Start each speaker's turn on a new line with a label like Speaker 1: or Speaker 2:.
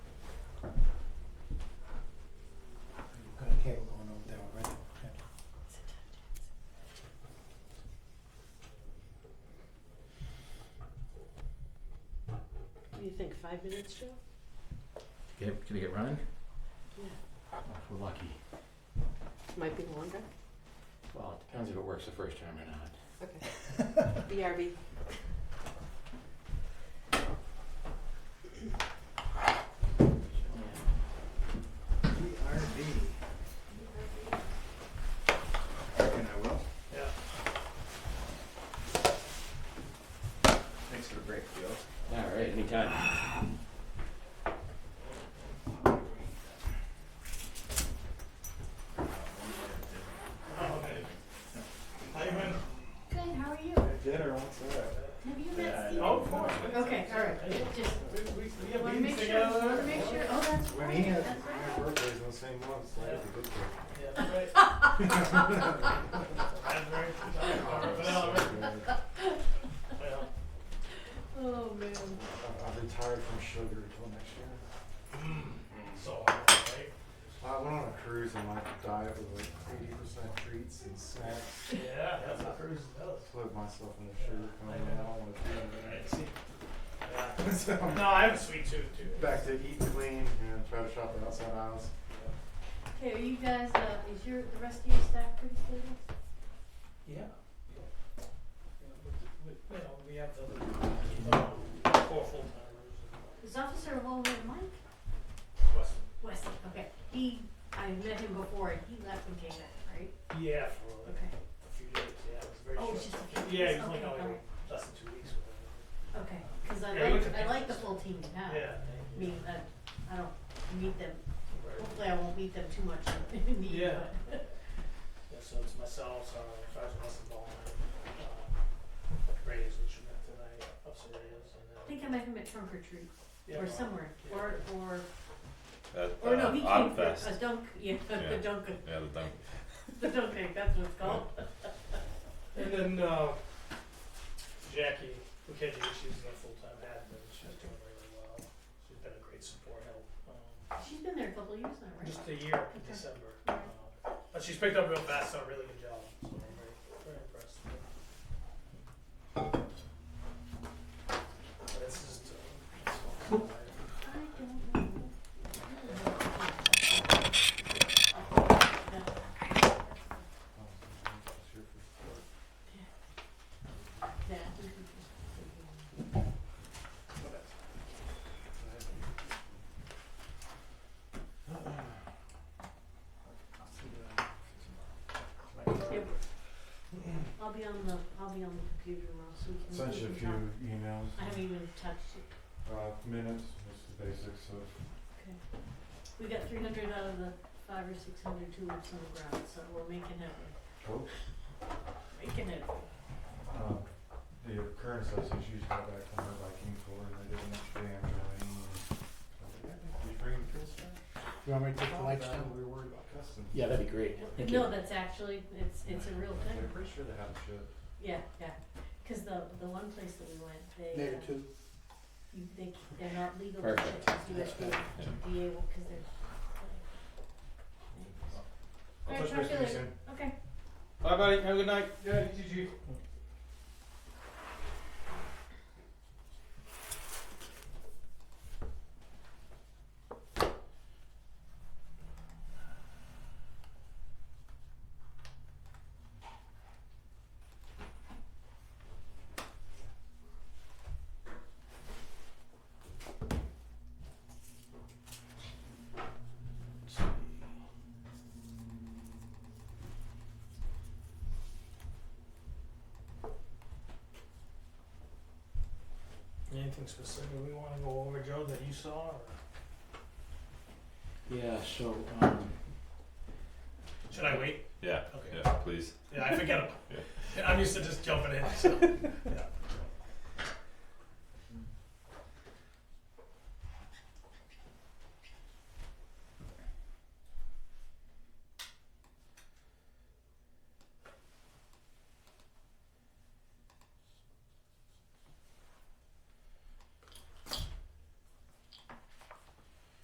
Speaker 1: think, five minutes, Joe?
Speaker 2: Get, can I get Ryan?
Speaker 1: Yeah.
Speaker 2: If we're lucky.
Speaker 1: Might be longer.
Speaker 2: Well, it depends if it works the first time or not.
Speaker 1: Okay. BRB.
Speaker 3: BRB. Reckon I will. Yeah. Thanks for the break, Joe.
Speaker 2: All right, anytime.
Speaker 1: Good, how are you?
Speaker 3: Dinner, what's that?
Speaker 1: Have you
Speaker 3: Yeah, I
Speaker 1: met Steve?
Speaker 3: know.
Speaker 1: Okay, all right. Just
Speaker 3: We, we
Speaker 1: wanna make sure, wanna make sure, oh, that's
Speaker 3: When
Speaker 1: right,
Speaker 3: he has,
Speaker 1: that's right.
Speaker 3: my birthday's on the same month, so that's a good thing. Yeah.
Speaker 1: Oh, man.
Speaker 3: I'll I'll retire from sugar until next year.
Speaker 4: So, right?
Speaker 3: I went on a cruise and my diet was like eighty percent treats and snacks.
Speaker 4: Yeah, that's what Cruz does.
Speaker 3: Slid myself in the sugar coma. I don't want to do
Speaker 4: Right,
Speaker 3: that.
Speaker 4: see? Yeah.
Speaker 3: So I'm
Speaker 4: No, I have a sweet tooth too.
Speaker 3: back to eat clean and try to shop the outside aisles.
Speaker 1: Okay, are you guys, uh, is your, the rest of your staff pretty stable?
Speaker 4: Yeah. You know, we have the, um, four full timers
Speaker 1: Is Officer Walter Mike?
Speaker 4: and Weston.
Speaker 1: Wesley, okay. He, I met him before and he left and came back, right?
Speaker 4: Yeah, for like
Speaker 1: Okay.
Speaker 4: a few days, yeah, it was very
Speaker 1: Oh,
Speaker 4: short.
Speaker 1: it's just a few
Speaker 4: Yeah,
Speaker 1: days,
Speaker 4: it was like
Speaker 1: okay,
Speaker 4: only
Speaker 1: alright.
Speaker 4: less than two weeks.
Speaker 1: Okay, cause I
Speaker 4: Yeah, we
Speaker 1: like,
Speaker 4: can-
Speaker 1: I like the full team now.
Speaker 4: whatever. Yeah.
Speaker 1: I mean, I, I don't meet them,
Speaker 4: Right.
Speaker 1: hopefully I won't meet them too much in the meeting,
Speaker 4: Yeah.
Speaker 1: but.
Speaker 4: Yeah, so it's myself, uh, Sergeant Weston Ballmer, uh, Reyes, which we met tonight, Officer Reyes, and
Speaker 1: I
Speaker 4: then.
Speaker 1: think I met him at trunk or treat,
Speaker 4: Yeah,
Speaker 1: or
Speaker 4: well,
Speaker 1: somewhere,
Speaker 4: yeah.
Speaker 1: or, or,
Speaker 5: At
Speaker 1: or no,
Speaker 5: uh,
Speaker 1: he came for
Speaker 5: Oddfest.
Speaker 1: a dunk, yeah, the
Speaker 5: Yeah.
Speaker 1: dunk,
Speaker 5: Yeah, the dunk.
Speaker 1: the dunk tank, that's what it's called.
Speaker 4: And then uh, Jackie Bukeji, she's a full-time admin. She's doing really well. She's been a great support help. Um,
Speaker 1: She's been there a couple of years now, right?
Speaker 4: just a year in
Speaker 1: Okay.
Speaker 4: December. Uh, but she's picked up real fast, done a really good job. So I'm very, very impressed. But it's just uh, it's all kind of-
Speaker 1: I don't know. Yeah. Yep. I'll be on the, I'll be on the computer tomorrow, so we can.
Speaker 3: Sent you a
Speaker 1: we
Speaker 3: few
Speaker 1: can talk.
Speaker 3: emails,
Speaker 1: I e- haven't even touched it,
Speaker 3: uh, minutes, just the basics of,
Speaker 1: okay. We got three hundred out of the five or six hundred tulips on the ground, so we're making it,
Speaker 3: oh,
Speaker 1: making it.
Speaker 3: uh, the current association used to go back from her Viking tour and they did an extra day on joining. Did you bring the kids back?
Speaker 6: You want me to take the lights down?
Speaker 3: We were worried about customs.
Speaker 2: Yeah, that'd be great. Thank you.
Speaker 1: No, that's actually, it's, it's a real
Speaker 3: I'm
Speaker 1: thing,
Speaker 3: pretty sure they have a chip.
Speaker 1: yeah, yeah, cause the, the one place that we went, they,
Speaker 6: Negative
Speaker 1: uh,
Speaker 6: two.
Speaker 1: you, they, c- they're not legal to
Speaker 2: Perfect.
Speaker 1: ship to USDA, DA, well, cause they're.
Speaker 3: I'll
Speaker 1: Alright,
Speaker 3: touch base
Speaker 1: talk to you
Speaker 3: with you
Speaker 1: later.
Speaker 3: soon.
Speaker 1: Okay.
Speaker 5: Bye, buddy. Have a good night.
Speaker 3: Yeah, GG.
Speaker 4: Anything specific we want to go over, Joe, that you saw? Or
Speaker 2: Yeah, so, um,
Speaker 4: should I wait?
Speaker 5: Yeah.
Speaker 4: Okay.
Speaker 5: Yeah, please.
Speaker 4: Yeah, I forget them.
Speaker 5: Yeah.
Speaker 4: I'm used to just jumping in. So. Yeah.